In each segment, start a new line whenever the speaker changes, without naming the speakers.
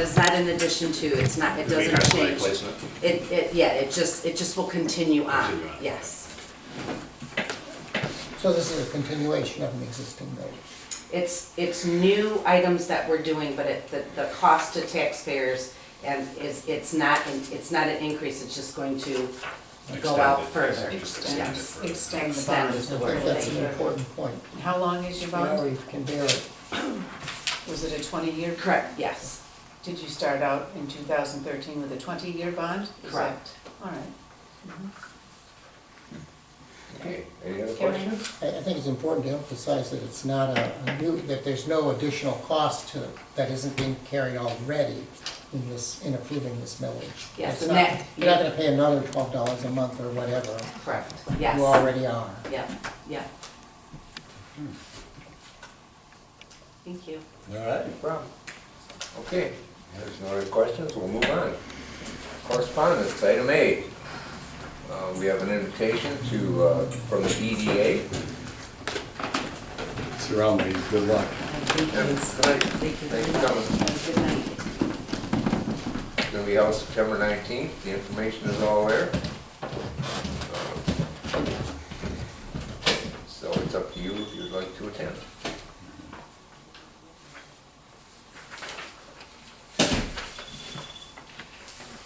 it's not in addition to, it's not, it
It'd be
doesn't
kind of like
change.
placement.
It, it, yeah, it just, it just will continue on,
Continue on, okay.
yes.
So this is a continuation of an existing building.
It's, it's new items that we're doing, but it, the, the cost to taxpayers and is, it's not, an- it's not an increase, it's just going to go
Extend
out
it,
further.
just
Yes.
extend it
Extend the
Extend
further.
bond.
is the
I
word,
think that's
thank
an
you.
important point.
How long is your
You know,
bond?
you can bear it.
Was it a 20-year?
Correct, yes,
Did you start out in 2013 with a 20-year bond? Is that-
Correct.
All right.
Mm-hmm. Okay, any other
Karen?
questions?
I, I think it's important to emphasize that it's not a, a new, that there's no additional cost to, that isn't being carried already in this, in approving this millage.
Yes,
It's
and
not-
that-
You're not gonna pay another twelve dollars a month or whatever.
correct,
You
yes,
already are.
yeah, yeah. Thank you.
All right. No problem. Okay, there's no other questions, we'll move on. Correspondence, item A. Uh, We have an invitation to, uh, from the EDA.
surrounding, good luck.
Thank you very much.
Good night.
It's gonna be held September 19th, the information is all there. So it's up to you if you'd like to attend.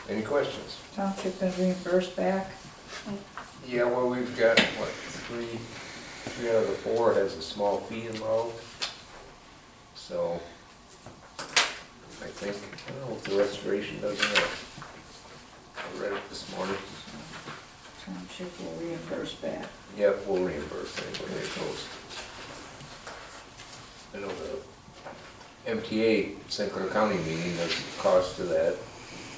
Any questions?
Don't get the reimbursed back.
Yeah, well, we've got, what, three, three out of the four has a small fee involved. So, I think, I don't know if the restoration doesn't have. I read it this morning.
Township will reimburse back.
Yep, we'll reimburse anybody that goes. I know the MTA St. Clair County meeting, there's a cost to that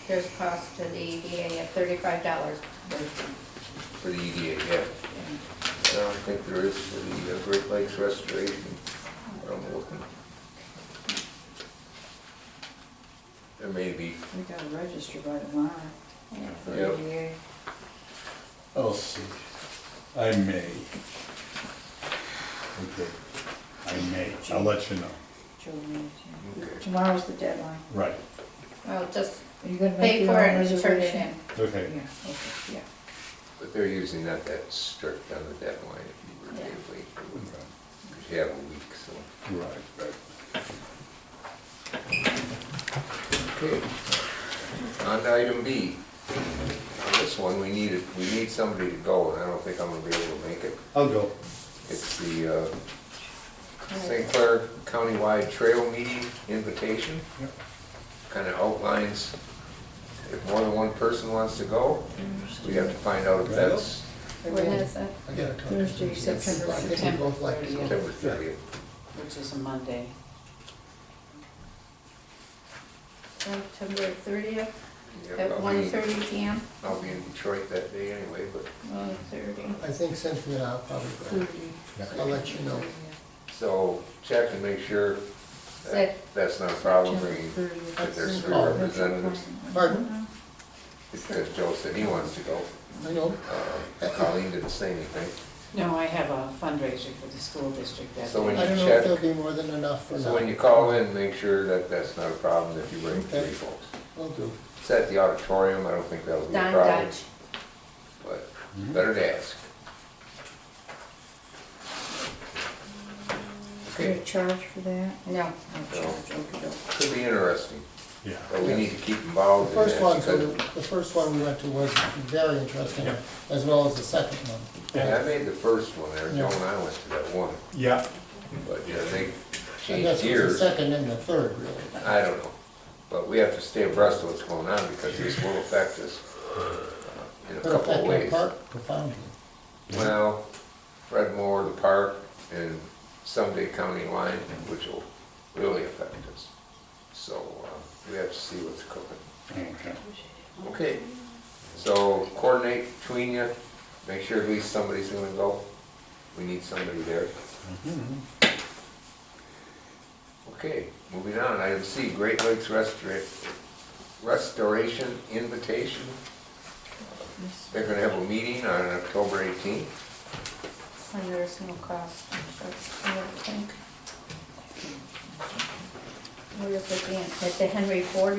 There's cost to the EDA at thirty-five dollars
for the EDA, yeah. I don't think there is for the uh, Great Lakes Restoration, but I'm looking. There may be,
We gotta register by tomorrow. for
Yep.
ADA.
I'll Oh, see. I may. Okay, I may. I'll let you know.
Joe needs
Okay.
it. Tomorrow's the deadline.
Right,
Well, just
Are you gonna make
pay
your
for
own
an
reservation?
instruction.
Yeah,
okay.
okay, yeah.
but they're usually not that strict on the deadline if you were
Yeah.
to wait.
Okay.
Because you have a week, so.
Right, right.
Okay. On to item B. On this one, we need, we need somebody to go, and I don't think I'm gonna be able to make it.
I'll go.
It's the uh, St. Clair Countywide Trail Meeting Invitation.
Yep.
Kind of outlines, if more than one person wants to go, we have to find out if that's
When is it?
I gotta talk to
Thursday,
you.
September
I think we both like to go.
September 30th.
Which is a Monday.
September thirtieth
Yep,
at
I'll
one
be-
thirty P M,
I'll be in Detroit that day anyway, but,
one thirty.
I think Cynthia and I'll probably, go. I'll let you know.
so check and make sure that
Set.
that's not a problem bringing, if there's three representatives.
Pardon?
Because Joe said he wants to go.
I know,
Uh, Colleen didn't say anything.
No, I have a fundraiser for the school district that
So
I
when
day.
don't know
Check.
if there'll be more than enough or
So when you
not.
call in, make sure that that's not a problem if you bring three
Okay.
folks.
Will do.
It's at the auditorium, I don't think that'll be a
Don
problem,
Dodge.
but better to ask.
Is there
Okay,
a charge for that?
No.
No charge, okay,
could be interesting,
Yeah.
but we need to keep
The
involved in
first
that.
one, so
because-
the first one we went to was very interesting, as well as the second one.
Yeah, I made the first one there,
Yeah.
Joe and I went to that one,
Yeah,
but yeah, they
I guess
changed
it was
gears.
the second and the third, really.
I don't know, but we have to stay abreast of what's going on because this will affect us uh, in a
But
couple of
affected
ways.
park profoundly.
Well, Fred Moore, the park, and someday County Line, which will really affect us. So uh, we have to see what's cooking.
okay.
Okay, so coordinate between you, make sure at least somebody's gonna go. We need somebody there. Okay, moving on, item C, Great Lakes Restora- Restoration Invitation. They're gonna have a meeting on October 18th.
And there's no cost, that's, I don't think. Where is it again? At the Henry Ford